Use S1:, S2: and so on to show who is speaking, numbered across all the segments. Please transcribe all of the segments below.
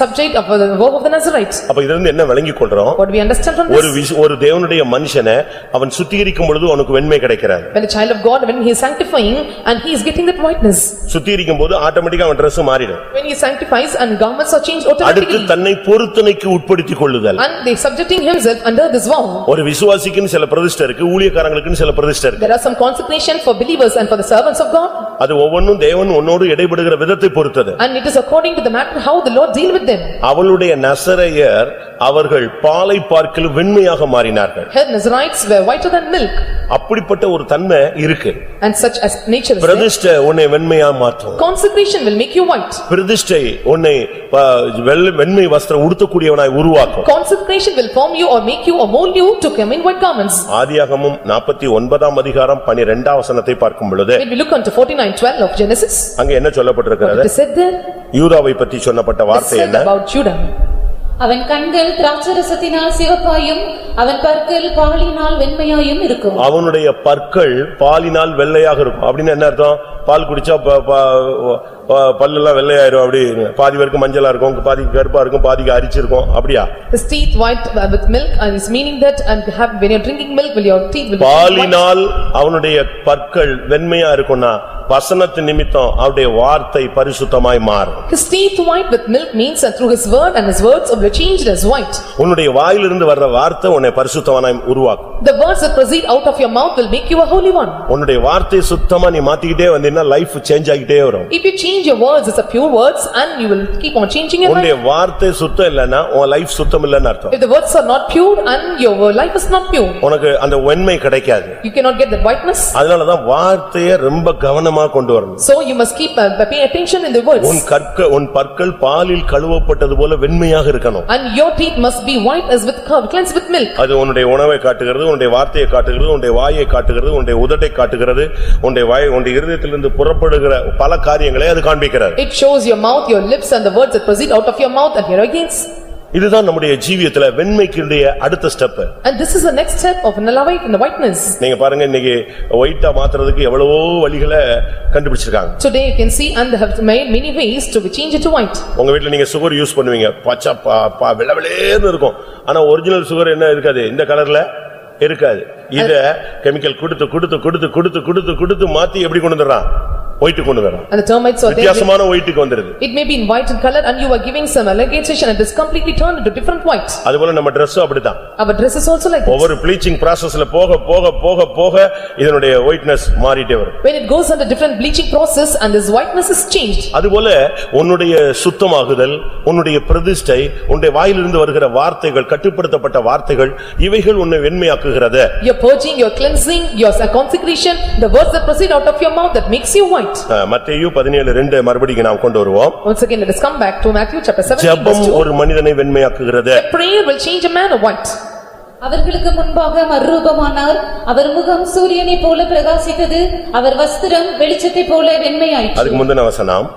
S1: subject of uh, the work of the Nazarites.
S2: அப்ப இதுல இருந்து என்ன விளங்கிக் கொள்றோம்
S1: What do we understand from
S2: ஒரு
S1: this?
S2: விஷ- ஒரு தேவனுடைய மனுஷனை அவன் சுத்திகரிக்கும் பொழுது உனக்கு வெண்மை கிடைக்கிறார்
S1: When a child of God, when he is sanctifying and he is getting that whiteness.
S2: சுத்திகரிக்கும் போது ஆட்டோமேட்டிக்கா அவன் Dress மாறிடும்
S1: When he sanctifies and garments are changed
S2: அடுத்து
S1: automatically.
S2: தன்னை பொருத்தனைக்கு உட்படுத்திக் கொள்ளுதல்
S1: And they subjecting himself under this vow.
S2: ஒரு விசுவாசிக்குன்னு சில பிரதிஷ்டை இருக்கு ஊழியக்காரங்களுக்குன்னு சில பிரதிஷ்டை இருக்கு
S1: There are some consecration for believers and for the servants of God.
S2: அது ஒவ்வொன்றும் தேவன் உன்னோடு இடைபடுகிற விதத்தை பொறுத்தது
S1: And it is according to the matter how the Lord deal with them.
S2: அவளுடைய நசரையர் அவர்கள் பாலை பார்க்கில் வெண்மையாக மாறினார்கள்
S1: Her Nazarites were whiter than milk
S2: அப்படிப்பட்ட ஒரு தன்மை இருக்கு
S1: and such as nature is there.
S2: பிரதிஷ்டை உன்னை வெண்மையா மாற்றும்
S1: Consecration will make you white.
S2: பிரதிஷ்டை உன்னை ஆ, வெள்ளை- வெண்மை வஸ்திரம் உடுத்தக்கூடியவனாய் உருவாக்கும்
S1: Consecration will form you or make you or mold you to come in white garments.
S2: ஆதியாகமும் நாற்பத்தி ஒன்பதாம் அதிகாரம் பனிரெண்டாம் வசனத்தை பார்க்கும் பொழுது
S1: When we look unto forty-nine twelve of Genesis,
S2: அங்க என்ன சொல்லப்பட்டிருக்கிறது
S1: it is said there,
S2: யூதாவை பத்தி சொன்னப்பட்ட
S1: it is
S2: வார்த்தை
S1: said
S2: என்ன
S1: about Judah.
S3: அவன் கண்கள் திராட்சரசத்தினால் சிவப்பாயும் அவன் பற்கள் பாலினால் வெண்மையாயும் இருக்கும்
S2: அவனுடைய பற்கள் பாலினால் வெள்ளையாக இருக்கும் அப்படின்னு என்ன அர்த்தம் பால் குடிச்சா ப- ப- ப- பல்லெல்லாம் வெள்ளையாயிரும் அப்படி பாதி பேருக்கு மஞ்சளா இருக்கும் பாதிக்கு கருப்பா இருக்கும் பாதிக்கு அரிச்சிருக்கும் அப்படியா
S1: His teeth white uh, with milk and is meaning that and have- when you are drinking milk, will your teeth will be white.
S2: பாலினால் அவனுடைய பற்கள் வெண்மையா இருக்கும்னா வசனத்து நிமித்தம் அவருடைய வார்த்தை பரிசுத்தமாய் மாறும்
S1: His teeth white with milk means that through his word and his words will be changed as white.
S2: உன்னுடைய வாயிலிருந்து வர்ற வார்த்தை உன்னை பரிசுத்தவனாய் உருவாக்கும்
S1: The words that proceed out of your mouth will make you a holy one.
S2: உன்னுடைய வார்த்தையை சுத்தமா நீ மாத்திக்கிட்டே வந்தீங்கன்னா லைஃப் சேஞ்ச் ஆகிட்டே வரும்
S1: If you change your words, it's a pure words and you will keep on changing your life.
S2: உன்னுடைய வார்த்தை சுத்தம் இல்லைன்னா உன் லைஃப் சுத்தம் இல்லைன்னு அர்த்தம்
S1: If the words are not pure and your life is not pure,
S2: உனக்கு அந்த வெண்மை கிடைக்காது
S1: you cannot get that whiteness.
S2: அதனாலதான் வார்த்தையை ரொம்ப கவனமா கொண்டு வரணும்
S1: So you must keep, uh, pay attention in the
S2: உன்
S1: words.
S2: கற்க உன் பற்கள் பாலில் கழுவப்பட்டது போல வெண்மையாக இருக்கணும்
S1: And your teeth must be white as with, cur- cleansed with milk.
S2: அது உன்னுடைய உணவை காட்டுகிறது உன்னுடைய வார்த்தையை காட்டுகிறது உன்னுடைய வாயை காட்டுகிறது உன்னுடைய உதட்டை காட்டுகிறது உன்னுடைய வாய் உன்னுடைய இருதயத்திலிருந்து புறப்படுகிற பல காரியங்களை அது காண்பிக்கிறது
S1: It shows your mouth, your lips and the words that proceed out of your mouth and your organs.
S2: இதுதான் நம்முடைய ஜீவியத்துல வெண்மைக்குடைய அடுத்த step
S1: And this is the next step of Nalawaik and the whiteness.
S2: நீங்க பாருங்க இன்னைக்கு ஒயிட்டா மாத்துறதுக்கு எவ்வளவோ வழிகளை கண்டுபிடிச்சிருக்காங்க
S1: Today you can see and they have made many ways to change it to white.
S2: உங்க வீட்ல நீங்க சுகர் யூஸ் பண்ணுவீங்க பச்சை பா- பா- வெளவெளேன்னு இருக்கும் ஆனா ஒரிஜினல் சுகர் என்ன இருக்காது இந்த கலர்ல இருக்காது இத கெமிக்கல் கொடுத்து கொடுத்து கொடுத்து கொடுத்து கொடுத்து கொடுத்து மாத்தி எப்படி கொண்டு வந்துடுறான் ஒயிட்டு கொண்டு வந்துடுறான்
S1: And the termites are there.
S2: வித்தியாசமான ஒயிட்டுக்கு வந்துருது
S1: It may be in white in color and you are giving some allegation and it's completely turned into different white.
S2: அதுபோல நம்ம ட்ரெஸ்ஸும் அப்படிதான்
S1: Our dress is also like that.
S2: ஒவ்வொரு bleaching ப்ராசஸ்ல போக போக போக போக இதனுடைய ஒயிட்னஸ் மாறிட்டே வரும்
S1: When it goes under different bleaching process and this whiteness is changed.
S2: அதுபோல உன்னுடைய சுத்தமாகுதல், உன்னுடைய பிரதிஷ்டை, உன்னுடைய வாயிலிருந்து வருகிற வார்த்தைகள், கட்டுப்படுத்தப்பட்ட வார்த்தைகள், இவைகள் உன்னை வெண்மையாக்குகிறது.
S1: Your purging, your cleansing, your consecration, the words that proceed out of your mouth that makes you white.
S2: அஹ், மத்தேயு 17:2 மறுபடியும் நாம் கொண்டு வருவோம்.
S1: Once again, let us come back to Matthew chapter 17
S2: ஜெபம்
S1: verse 2.
S2: ஒரு மனிதனை வெண்மையாக்குகிறது.
S1: Prayer will change a man of white.
S3: அவர்களுக்கு முன்பாக மறுரூபமானார் அவர் முகம் சூரியனைப் போல பிரகாசித்தது அவர் வஸ்திரம் வெளிச்சத்தைப் போல வெண்மையாயிற்று
S2: அதுக்கு முந்தின வசனம்.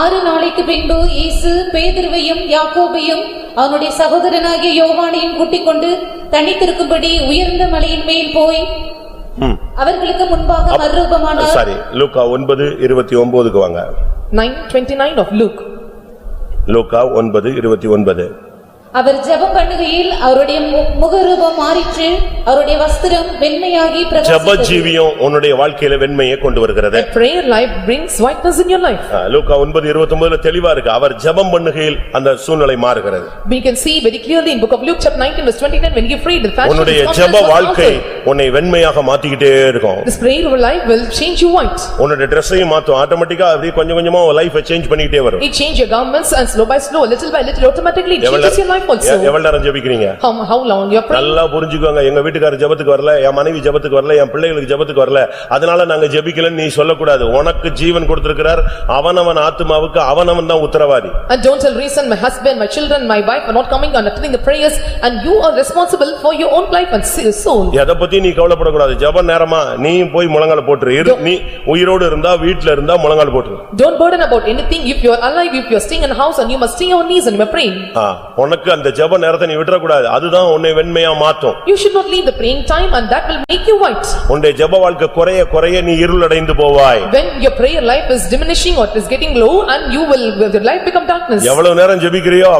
S3: ஆறு நாளைக்கு பின்பு இயேசு பேதுருவையும் யாக்கோபையும் அவனுடைய சகோதரனாகிய யோவானையும் கூட்டிக் கொண்டு தனித்திருக்கும்படி உயர்ந்த மலையின் மேல் போய்
S2: ம்.
S3: அவர்களுக்கு முன்பாக
S2: அஹ்,
S3: மறுரூபமானார்
S2: சாரி, லூக்கா 9:29க்கு வாங்க.
S1: 9:29 of Luke.
S2: லூக்கா 9:29.
S3: அவர் ஜெபம் பண்ணுகையில் அவருடைய மு- முகரூபம் மாறிற்று அவருடைய வஸ்திரம் வெண்மையாகி
S2: ஜெப
S3: பிரகாசித்தது
S2: ஜீவியம் உன்னுடைய வாழ்க்கையில வெண்மையை கொண்டு வருகிறது.
S1: A prayer life brings whiteness in your life.
S2: அஹ், லூக்கா 9:29ல தெளிவா இருக்கு. அவர் ஜெபம் பண்ணுகையில் அந்த சூழ்நிலை மாறுகிறது.
S1: We can see very clearly in book of Luke chapter 19 verse 29 when you pray the fashion
S2: உன்னுடைய
S1: is
S2: ஜெப
S1: confidence was
S2: வாழ்க்கை
S1: altered.
S2: உன்னை வெண்மையாக மாத்திக்கிட்டே இருக்கும்
S1: This prayer of life will change you white.
S2: உன்னுடைய ட்ரெஸ்ஸையும் மாத்தும் ஆட்டோமேட்டிக்கா அப்படியே கொஞ்சம் கொஞ்சமா உன் லைஃபை சேஞ்ச் பண்ணிக்கிட்டே வரும்
S1: It change your garments and slow by slow, little by little, automatically it
S2: எவ்வளவு
S1: changes your life
S2: நேரம் எ-
S1: also.
S2: எவ்வளவு நேரம் ஜெபிக்கிறீங்க
S1: How how long you are praying?
S2: நல்லா புரிஞ்சுக்கோங்க எங்க வீட்டுக்காரர் ஜெபத்துக்கு வரல என் மனைவி ஜெபத்துக்கு வரல என் பிள்ளைகளுக்கு ஜெபத்துக்கு வரல அதனால நாங்க ஜெபிக்கலன்னு நீ சொல்லக்கூடாது உனக்கு ஜீவன் கொடுத்திருக்கிறார் அவனவன் ஆத்மாவுக்கு அவனவன் தான் உத்தரவாதி
S1: And don't tell reason, my husband, my children, my wife are not coming and attending the prayers and you are responsible for your own life and s- soul.
S2: எதை பத்தி நீ கவலைப்படக்கூடாது ஜெப நேரமா நீ போய் முழங்கால போட்டுரு இரு நீ உயிரோடு இருந்தா வீட்டுல இருந்தா முழங்கால போட்டுரு
S1: Don't burden about anything if you are alive, if you are staying in a house and you must stay on knees and you are praying.
S2: ஆ, உனக்கு அந்த ஜெப நேரத்தை நீ விட்டுறக்கூடாது அதுதான் உன்னை வெண்மையா மாத்தும்
S1: You should not leave the praying time and that will make you white.
S2: உன்னுடைய ஜெப வாழ்க்கை குறைய குறைய நீ இருளடைந்து போவாய்
S1: When your prayer life is diminishing or it is getting low and you will, your life become darkness.
S2: எவ்வளவு நேரம் ஜெபிக்கிறியோ